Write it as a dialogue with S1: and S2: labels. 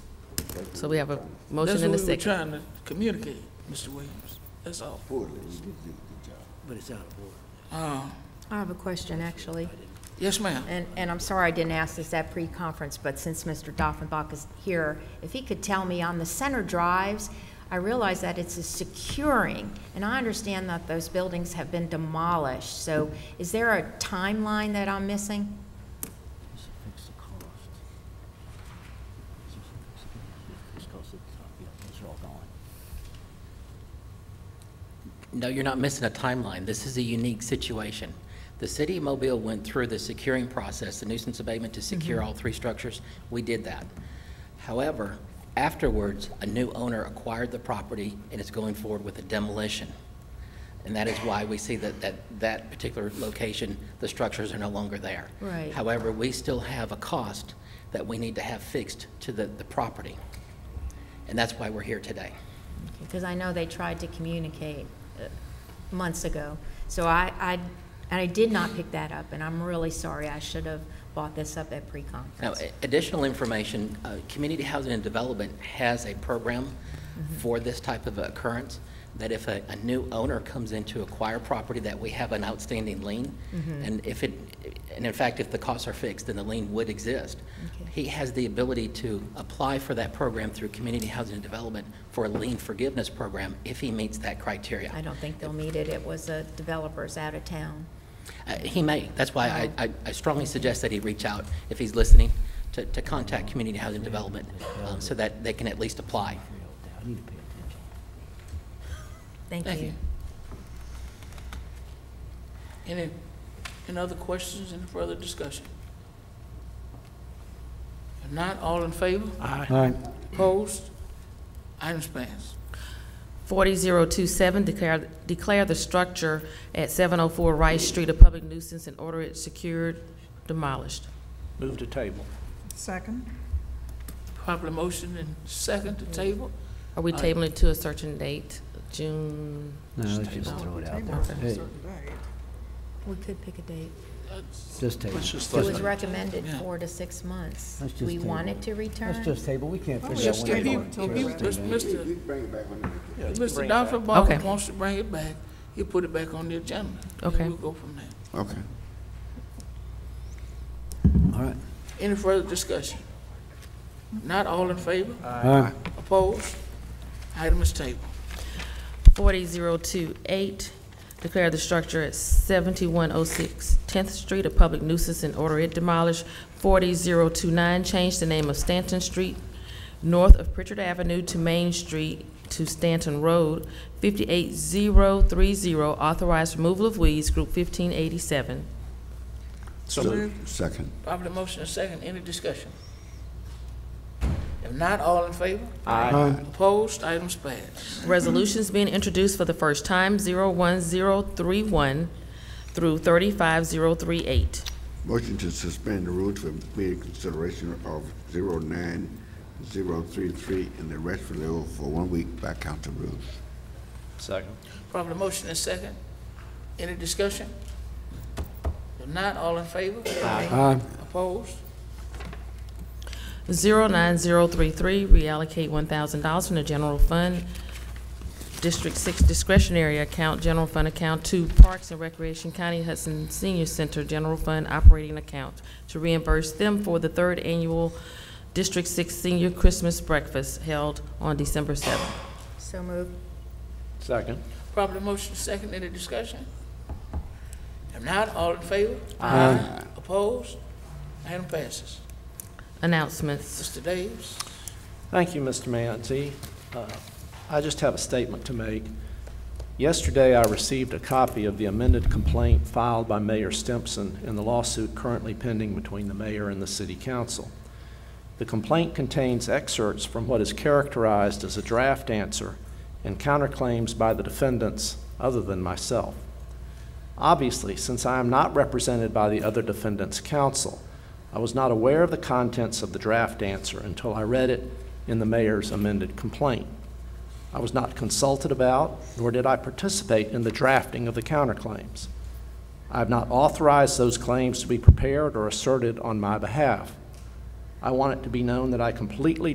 S1: So we have a
S2: That's
S1: motion
S2: what
S1: and a
S2: we were
S1: second.
S2: trying to communicate, Mr. Williams. That's all.
S3: but it's out of order.
S2: Uh,
S4: I have a question, actually,
S2: Yes, ma'am.
S4: and, and I'm sorry I didn't ask this at pre-conference, but since Mr. Doffenbach is here, if he could tell me on the center drives, I realize that it's a securing, and I understand that those buildings have been demolished, so is there a timeline that I'm missing?
S3: Just fix the cost. Just fix it. Just cost it, you know, Those are all gone.
S5: No, you're not missing a timeline. This is a unique situation. The city of Mobile went through the securing process, the nuisance abatement to secure all three structures. We did that. However, afterwards, a new owner acquired the property and is going forward with a demolition. And that is why we see that, that, that particular location, the structures are no longer there.
S4: Right.
S5: However, we still have a cost that we need to have fixed to the, the property. And that's why we're here today.
S4: Because I know they tried to communicate uh, months ago, so I, I, and I did not pick that up, and I'm really sorry, I should have bought this up at
S5: Now,
S4: pre-conference.
S5: a- additional information, uh, Community Housing and Development has a program for this type of occurrence, that if a, a new owner comes in to acquire property, that we have an outstanding lien. And if it, and in fact, if the costs are fixed, then the lien would exist.
S4: Okay.
S5: He has the ability to apply for that program through Community Housing and Development for a lien forgiveness program if he meets that criteria.
S4: I don't think they'll need it, it was a developer's out of town.
S5: Uh, He may. That's why I- I, I strongly suggest that he reach out, if he's listening, to, to contact Community Housing Development, um, so that they can at least apply.
S3: Figure it out now. I need to pay attention.
S4: Thank
S2: Thank
S4: you.
S2: you. Any, any other questions, any further discussion? If not, all in favor?
S6: Aye.
S2: Opposed? Items passed.
S1: 40027, declare, declare the structure at 704 Rice Street a public nuisance and order it secured, demolished.
S7: Move to table.
S8: Second.
S2: Properly motion and second to table?
S1: Are we
S2: Aye.
S1: tabling it to a certain date, June?
S3: No, let's just throw it out.
S8: Table
S3: there.
S8: for a
S3: Hey.
S8: certain date.
S4: We could pick a date.
S2: That's-
S3: Just table.
S7: Let's just
S4: It
S7: let
S4: was
S7: it-
S4: recommended
S2: Yeah.
S4: four to six months.
S3: Let's just
S4: We
S3: table
S4: wanted
S3: it.
S4: to return.
S3: Let's just table, we can't
S8: Let's
S3: figure out
S8: just
S3: when
S2: If
S3: they
S2: he,
S8: table
S3: want.
S2: if
S3: to
S2: he,
S3: do it.
S2: Mr.
S6: Bring it back when they-
S7: Yeah, just
S2: Mr.
S7: bring it back.
S2: Dr.
S1: Okay.
S2: Ball wants to bring it back, he'll put it back on the agenda. and
S1: Okay.
S2: We'll go from there.
S6: Okay.
S3: All right.
S2: Any further discussion? Not all in favor?
S6: Aye.
S2: Opposed? Item is tabled.
S1: 40028, declare the structure at 7106 10th Street a public nuisance and order it demolished. 40029, change the name of Stanton Street north of Pritchard Avenue to Main Street to Stanton Road. 58030, authorize removal of weeds, Group 1587.
S7: So
S6: So-
S7: moved.
S6: Second.
S2: Properly motion and second, any discussion? If not, all in favor?
S6: Aye.
S2: Opposed, items passed.
S1: Resolutions being introduced for the first time, 01031 through 35038.
S6: Motion to suspend the rules for immediate consideration of 09033 and the rest for the rule for one week by council rules.
S7: Second.
S2: Properly motion and second, any discussion? If not, all in favor?
S6: Aye.
S2: Opposed?
S1: 09033, reallocate $1,000 from the general fund, District 6 discretionary account, general fund account, to Parks and Recreation County Hudson Senior Center general fund operating account to reimburse them for the third annual District 6 Senior Christmas Breakfast held on December 7th.
S4: So moved.
S7: Second.
S2: Properly motion and second, any discussion? If not, all in favor? Aye. Opposed? Item passes.
S1: Announcements.
S2: Mr. Davis?
S7: Thank you, Mr. Manzi. Uh, I just have a statement to make. Yesterday, I received a copy of the amended complaint filed by Mayor Stimson in the lawsuit currently pending between the mayor and the city council. The complaint contains excerpts from what is characterized as a draft answer and counterclaims by the defendants other than myself. Obviously, since I am not represented by the other defendant's counsel, I was not aware of the contents of the draft answer until I read it in the mayor's amended complaint. I was not consulted about, nor did I participate in the drafting of the counterclaims. I have not authorized those claims to be prepared or asserted on my behalf. I want it to be known that I completely